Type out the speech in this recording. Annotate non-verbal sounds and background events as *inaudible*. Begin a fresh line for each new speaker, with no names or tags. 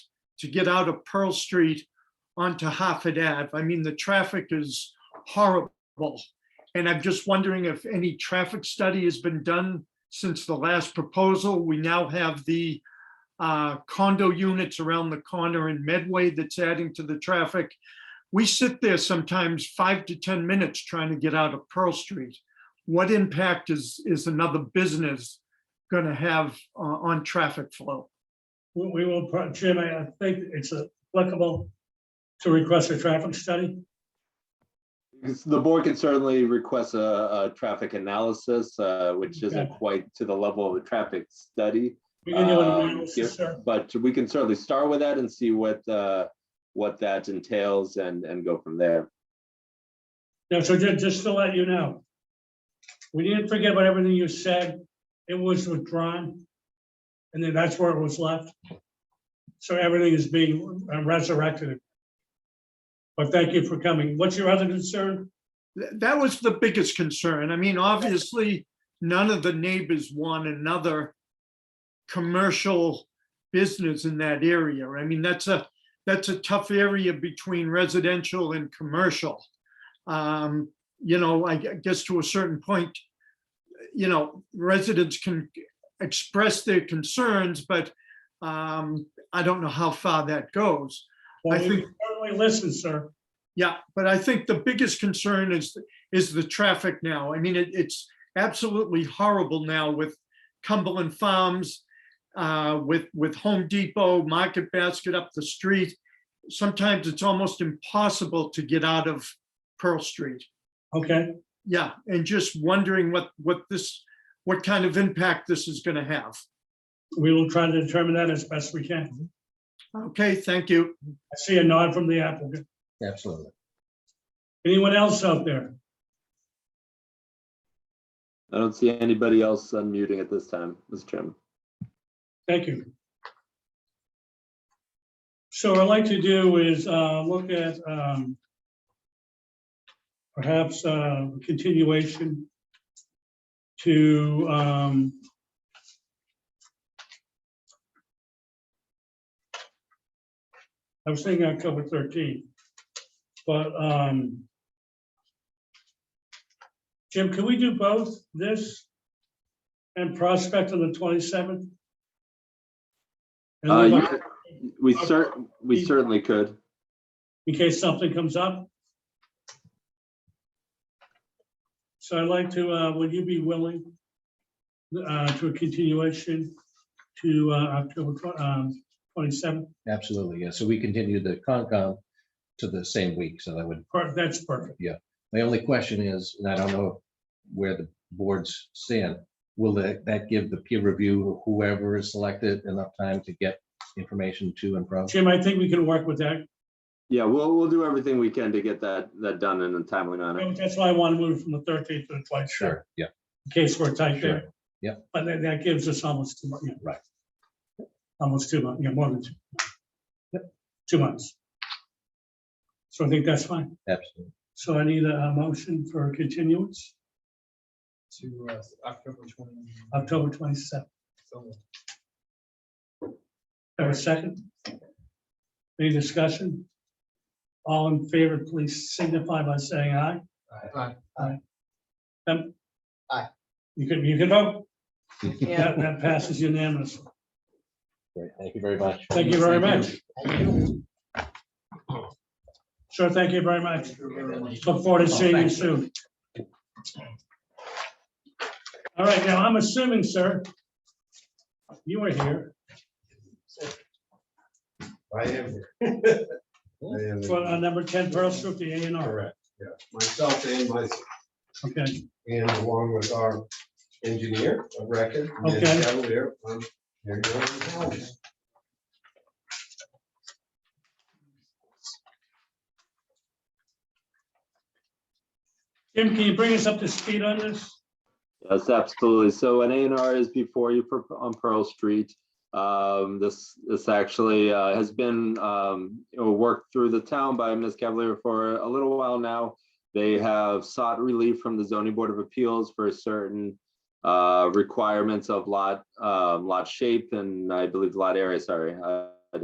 to get out of Pearl Street onto Hartford Ave. I mean, the traffic is horrible. And I'm just wondering if any traffic study has been done since the last proposal. We now have the uh, condo units around the corner in Medway that's adding to the traffic. We sit there sometimes five to 10 minutes trying to get out of Pearl Street. What impact is, is another business going to have uh, on traffic flow?
We, we will, pro- Jim, I I think it's applicable to request a traffic study.
The board can certainly request a, a traffic analysis, uh, which isn't
Okay.
quite to the level of a traffic study.
We can do an
Um, yeah,
analysis, sir.
But we can certainly start with that and see what, uh, what that entails and, and go from there.
No, so ju- just to let you know, we didn't forget about everything you said. It was withdrawn. And then that's where it was left. So everything is being uh, resurrected. But thank you for coming. What's your other concern?
Th- That was the biggest concern. I mean, obviously, none of the neighbors want another commercial business in that area. I mean, that's a, that's a tough area between residential and commercial. Um, You know, I gue- guess to a certain point, you know, residents can express their concerns, but um, I don't know how far that goes.
Well,
I
we certainly listen, sir.
Yeah, but I think the biggest concern is, is the traffic now. I mean, it, it's absolutely horrible now with Cumberland Farms, uh, with, with Home Depot, Market Basket up the street. Sometimes it's almost impossible to get out of Pearl Street.
Okay,
Yeah, and just wondering what, what this, what kind of impact this is gonna have.
we will try to determine that as best we can.
Okay, thank you.
I see a nod from the applicant.
Absolutely.
Anyone else out there?
I don't see anybody else unmuting at this time, Mr. Chairman.
Thank you. So what I'd like to do is uh, look at um, perhaps uh, continuation to um, I was thinking October 13th, but um, Jim, can we do both this and Prospect on the 27th? And
Uh,
leave
you
Oc-
could- We cer, we certainly could.
in case something comes up. So I'd like to, uh, would you be willing uh, to a continuation to uh, October twen- um, 27th?
Absolutely, yeah. So we continue the Concom to the same week, so that would,
Per- That's perfect.
my only question is, and I don't know where the boards stand, will that, that give the peer review, whoever is selected, enough time to get information to and from?
Jim, I think we can work with that.
Yeah, we'll, we'll do everything we can to get that, that done in a timely manner.
That's why I want to move from the 13th to the 27th,
Sure, yeah,
in case we're tight there.
sure.
But that, that gives us almost two months.
Right.
Almost two months, yeah, more than two. Two months. So I think that's fine.
Absolutely.
So I need a a motion for a continuance,
to uh, October twenty.
October twenty-seventh,
so
have a second? Any discussion? All in favor, please signify by saying aye.
Aye.
Um,
Aye.
You can, you can vote,
Yeah.
that, that passes unanimously,
Great. Thank you very much.
thank you very much. Sure, thank you very much, look forward to seeing you soon. All right, now, I'm assuming, sir, you were here,
I am *laughs* here. I am
for uh,
here.
number ten Pearl Street, the A and R,
Correct, yeah. Myself and myself,
okay?
and along with our engineer of record. Ned
Okay.
Cavalier, I'm here to help.
Jim, can you bring us up to speed on this?
Yes, absolutely. So an A and R is before you for- on Pearl Street. Um, this, this actually, uh, has been, um, you know, worked through the town by Ms. Cavalier for a little while now. They have sought relief from the zoning board of appeals for certain, uh, requirements of lot, um, lot shape and I believe lot area, sorry. Uh,